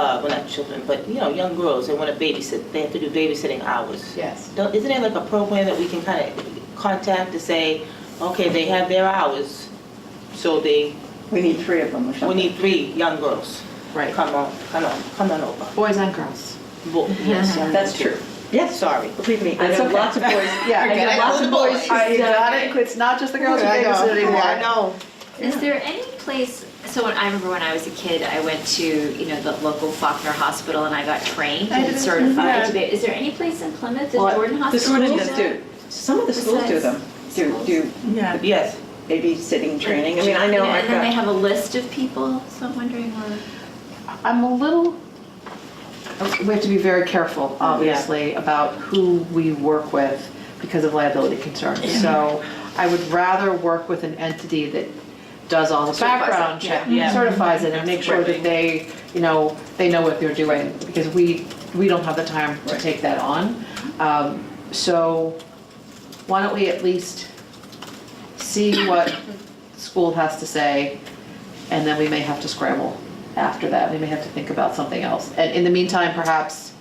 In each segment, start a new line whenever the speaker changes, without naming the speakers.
child, uh, well, not children, but, you know, young girls, they want to babysit, they have to do babysitting hours.
Yes.
Don't, isn't there like a program that we can kind of contact to say, okay, they have their hours, so they,
We need three of them or something.
we need three young girls.
Right.
Come on, come on, come on over.
Boys and girls.
Bo- Yes, young
That's
girls.
true.
Yes, sorry.
Believe me, I
That's
know
okay.
lots of boys, yeah, I
Forget
know
it,
lots
all the
of boys.
boys.
who
I
do
got
that.
it, it's not just the girls who
I know,
babysit
I
anymore.
know.
Is there any place, so when, I remember when I was a kid, I went to, you know, the local Faulkner Hospital and I got trained
I
and
did,
certified
yeah.
to be, is there any place in Plymouth, the
Well,
Jordan
The
Hospital?
schools do, some of the schools do
Besides
them, do,
schools.
do
Yeah.
Yes.
babysitting training. I mean, I know
Yeah,
I've
And then they
got,
have a list of people, so I'm wondering where.
I'm a little, we have to be very careful, obviously, about who we work with because of liability concerns. So I would rather work with an entity that does all the
Certifies it,
background check,
yeah. Yeah.
certifies it, and makes sure
Absolutely.
that they, you know, they know what they're doing, because we, we don't have the time to
Right.
take that on. Um, So why don't we at least see what school has to say, and then we may have to scramble after that. We may have to think about something else. And in the meantime, perhaps,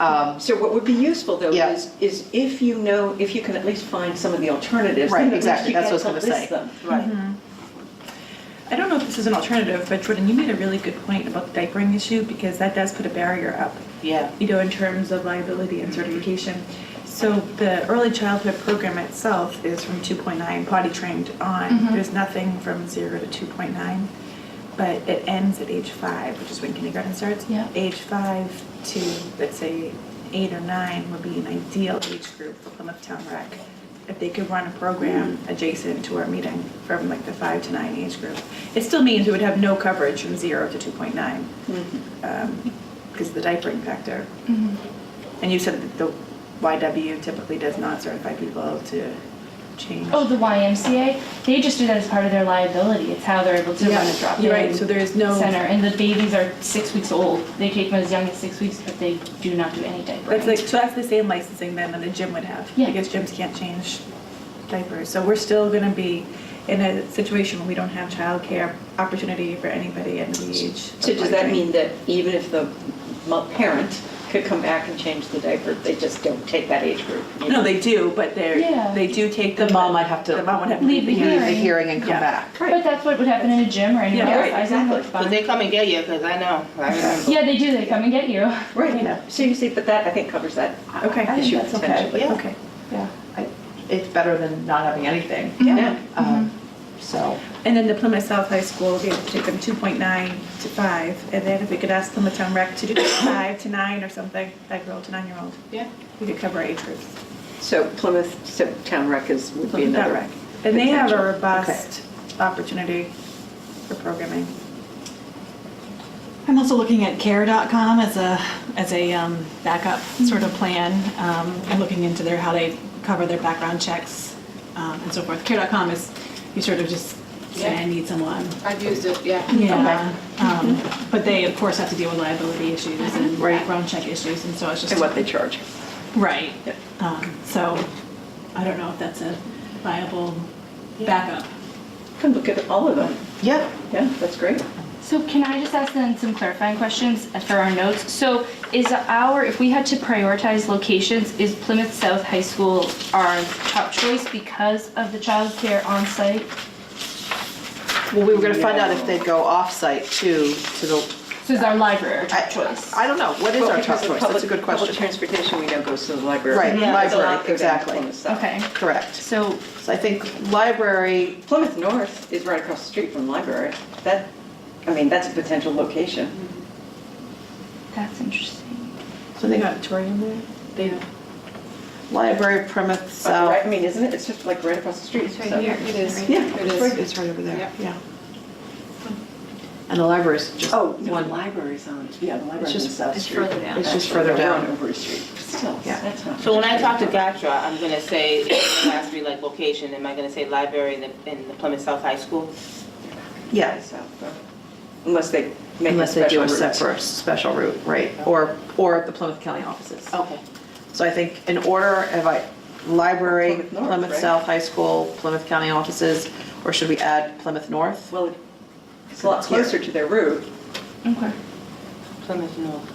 um,
so what would be useful though
Yeah.
is, is if you know, if you can at least find some of the alternatives.
Right,
then at least
exactly.
you
That's
get
what I was
to
gonna
list
say.
them.
Right.
I don't know if this is an alternative, but Jordan, you made a really good point about the diapering issue because that does put a barrier up,
Yeah.
you know, in terms of liability and certification. So the early childhood program itself is from 2.9 potty trained on. There's nothing from 0 to 2.9, but it ends at age 5, which is when kindergarten starts.
Yeah.
Age 5 to, let's say, 8 or 9 would be an ideal age group for Plymouth Town Rec. If they could run a program adjacent to our meeting from like the 5 to 9 age group. It still means we would have no coverage from 0 to 2.9 because of um, the diapering factor. And you said that the YW typically does not certify people to change.
Oh, the YMCA, they just do that as part of their liability. It's how they're able to run a
You're right, so
drop-in
there is no,
center. And the babies are six weeks old. They take them as young as six weeks, but they do not do any
that's like,
diapering.
so that's the same licensing then that a gym would have.
Yeah.
Because gyms can't change diapers. So we're still going to be in a situation where we don't have childcare opportunity for anybody at the age. of
So does that
five.
mean that even if the mo- parent could come back and change the diaper, they just don't take that age group? you
No,
know?
they do, but they're,
Yeah.
they do take
the
them.
mom might have to
The mom would have to
Leave
leave the
the
leave the
Hearing.
hearing and come
Yeah.
back.
But that's what would happen in a gym or anywhere
Yeah,
else.
right,
I don't have
exactly.
But
fun.
they come and get you, because I know, I remember.
Yeah, they do. They come and get you.
Right, so you see, but that, I think covers that
Okay. I think
issue
that's okay.
potentially.
Yeah.
Okay.
Yeah. I- It's better than not having anything.
Yeah.
Um, So,
And then the Plymouth South High School, we have to take them two point nine to five, and then if we could ask Plymouth Town Rec to do five to nine or something, five-year-old to nine-year-old.
Yeah.
We could cover age groups.
So Plymouth, so town rec is, would be
Plymouth Town
another.
Rec. And they have a
potential.
robust opportunity for programming.
I'm also looking at care.com as a, as a um, backup sort of plan. Um, I'm looking into their, how they cover their background checks um, and so forth. Care.com is, you sort of just say, I need someone.
I've used it, yeah.
Yeah. Um, But they, of course, have to deal with liability issues and
Mm-hmm. Right.
background check issues, and so it's just.
And what they charge.
Right.
Yep.
Um, So I don't know if that's a viable backup.
Can look at all of them.
yeah.
Yeah, that's great.
So can I just ask then some clarifying questions for our notes? So is our, if we had to prioritize locations, is Plymouth South High School our top choice because of the childcare on-site?
Well, we were going to find out if they'd go off-site too, to the.
So is our library our
I-
top choice?
I don't know. What is
Well,
our
because
top
the
choice? That's
public-
a good
Public
question.
transportation, we know, goes to the library.
Right,
There's a lot
library,
that go down
exactly.
Plymouth South.
Okay,
Correct.
so,
So I think library,
Plymouth North is right across the street from the library. That, I mean, that's a potential location.
that's interesting.
so I think
auditorium there?
They,
library, Plymouth
Right, I
South.
mean, isn't it? It's just like right across the street.
It's right
so-
here.
it is,
Yeah,
it
it's
is.
right-
It's right over there,
Yep.
yeah. And the library's just
Oh, no, the
one,
library's on, yeah, the library's on
just-
South
it's
Street.
further down.
It's just
Actually,
further
we're
down.
on Overy Street, but still,
Yeah.
that's not.
So when I talk to Gatra, I'm gonna say, if you ask me like location, am I gonna say library in the, in the Plymouth South High School?
yeah,
South, though. Unless they make a
unless they do
special
a
route.
separate, special route, right? Or, or the Plymouth County offices.
Okay.
So I think in order, have I, library,
Plymouth North,
Plymouth
right?
South High School, Plymouth County offices, or should we add Plymouth North?
Well, it's a lot
It's here.
closer to their route.
Okay.
Plymouth North.